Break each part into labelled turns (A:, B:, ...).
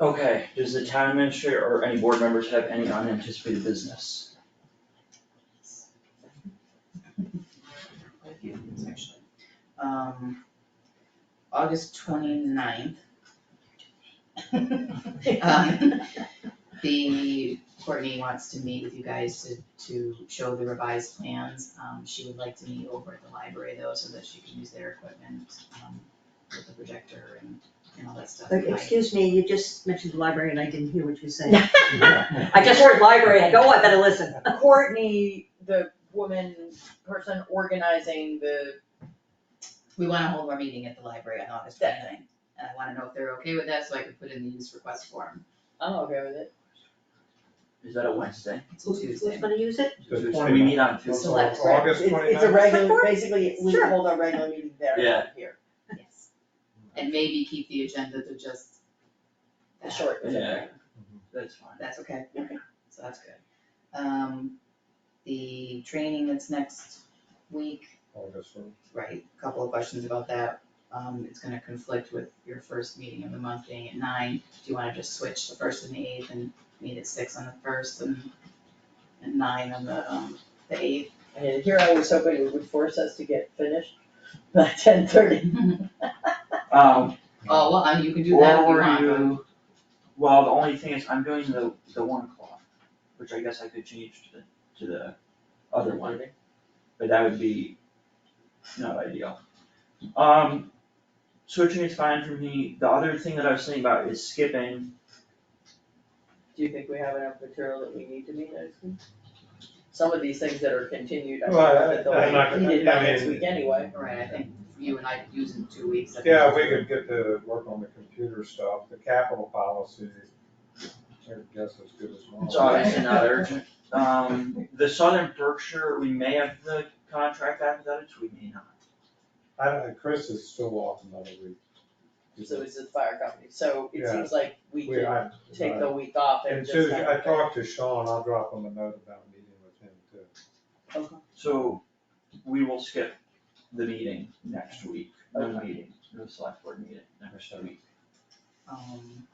A: Okay, does the town administrator or any board members have any unanticipated business?
B: quite a few things actually. Um, August 29th. Um, The, Courtney wants to meet with you guys to, to show the revised plans. Um, she would like to meet over at the library though, so that she can use their equipment, um, with the projector and, and all that stuff.
C: Okay, Excuse me, you just mentioned the library and I didn't hear what you said. I
D: I
C: just heard library, I go, "Oh, I better listen.
D: Courtney, the woman, person organizing the,
B: We wanna hold our meeting at the library on August 29th, and I wanna know if they're okay with that, so I can put in the use request form.
D: I'm okay with it.
A: Is that a Wednesday?
B: It's a Tuesday.
C: Who's gonna use it?
E: The
A: Should
E: 29th.
A: we meet on Tuesday?
B: Select
E: So August
F: It's,
E: twenty
F: it's a regular, basically, we
C: Sure.
F: hold our regular meeting there,
A: Yeah.
F: not here,
B: Yes. And maybe keep the agenda to just
F: the
B: that.
F: short. is okay.
A: Yeah. That's fine.
B: That's okay.
F: Okay.
B: So that's good. Um, the training that's next week,
E: August one.
B: right, a couple of questions about that. Um, it's gonna conflict with your first meeting of the month being at nine. Do you wanna just switch the first and the eighth and meet at six on the first and and nine on the um, the eighth?
F: And here I was hoping it would force us to get finished by ten thirty.
A: Um,
B: Oh, well, I mean, you can do that if you
A: or
B: want. but-
A: you, well, the only thing is I'm doing the, the one o'clock, which I guess I could change to the, to the other one, but that would be not ideal. Um, switching is fine for me. The other thing that I was thinking about is skipping,
F: Do you think we have enough material that we need to meet next week? Some of these things that are continued, I
E: Well, I-
F: think
E: I'm not
F: they'll be
E: gonna-
F: needed by
E: I
F: next
E: mean-
F: week anyway.
B: Right, I think you and I could use in two weeks. I think
E: Yeah,
B: that's
E: if we
B: good.
E: could get to work on the computer stuff, the capital policy, I guess as good as mine.
A: it's obviously not urgent. Um, the Southern Berkshire, we may have the contract athletics, we may not.
E: I don't know, Chris is still off another week.
F: So it's the fire company, so it
E: Yeah.
F: seems like we
E: We,
F: can
E: I,
F: take the week off and
E: and
F: just.
E: Susan, I
F: have-
E: talked to Sean, I'll drop him a note about meeting with him too.
F: Okay.
A: So we will skip the meeting next week, no
F: Okay.
A: meeting, no select board meeting next week.
B: Um,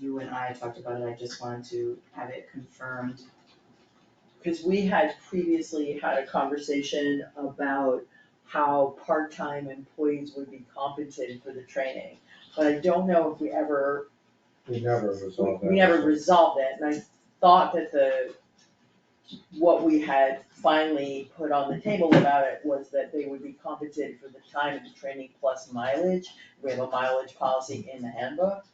B: you and I talked about it, I just wanted to have it confirmed.
F: Cause we had previously had a conversation about how part-time employees would be compensated for the training. But I don't know if we ever,
E: We never resolved that.
F: we never resolved it, and I thought that the, what we had finally put on the table about it was that they would be compensated for the time of the training plus mileage. We have a mileage policy in the handbook.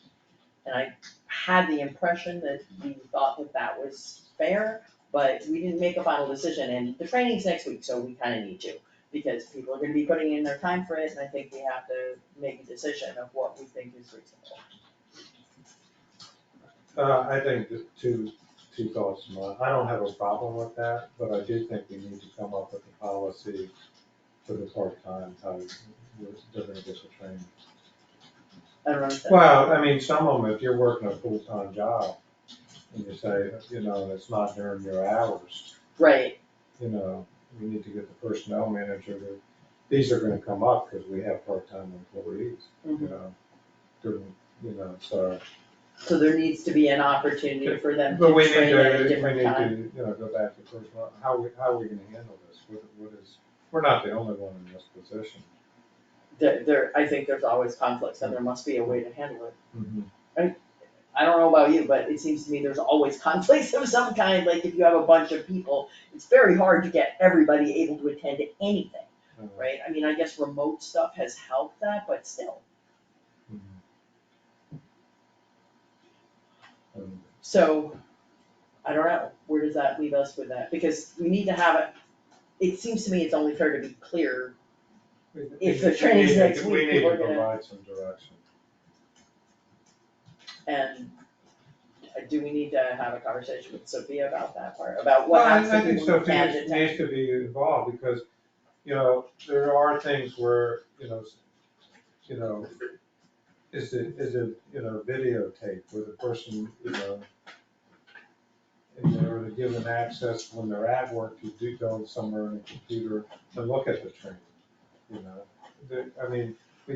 F: And I had the impression that we thought that that was fair, but we didn't make a final decision, and the training's next week, so we kinda need to. Because people are gonna be putting in their time for it, and I think we have to make a decision of what we think is reasonable.
E: Uh, I think the two, two thoughts, in mind. I don't have a problem with that, but I do think we need to come up with a policy for the part-time, how we're, they're gonna get the training.
F: I don't understand.
E: Well, I mean, some of them, if you're working a full-time job, and you say, you know, it's not during your hours,
F: Right,
E: you know, we need to get the personnel manager to, these are gonna come up, because we have part-time employees, you
F: Mhm.
E: know, during, you know, so.
F: so there needs to be an opportunity for them
E: But
F: to
E: we need
F: train at a
E: to, we
F: different
E: need
F: time.
E: to, you know, go back to personnel, how we, how are we gonna handle this, what, what is, we're not the only one in this position.
F: There, there, I think there's always conflicts, and there must be a way to handle it. I don't know about you, but it seems to me there's always conflicts of some kind, like if you have a bunch of people, it's very hard to get everybody able to attend to anything.
E: Uh,
F: right? I mean, I guess remote stuff has helped that, but still.
E: mm-hmm. um,
F: So, I don't know, where does that leave us with that? Because we need to have it, it seems to me it's only fair to be clear.
E: we-
F: If
E: we-
F: the training's
E: we need to-
F: next week,
E: We need
F: we're
E: to
F: gonna-
E: provide some direction.
F: And do we need to have a conversation with Sophia about that part, about what
E: Well, I-
F: happens to people who
E: I
F: can't
E: think
F: attend?
E: Sophia needs to be involved, because, you know, there are things where, you know, s- you know, is it, is it, you know, videotape where the person, you know, and they're given access when they're at work to do go somewhere on the computer and look at the training, you know? The, I mean,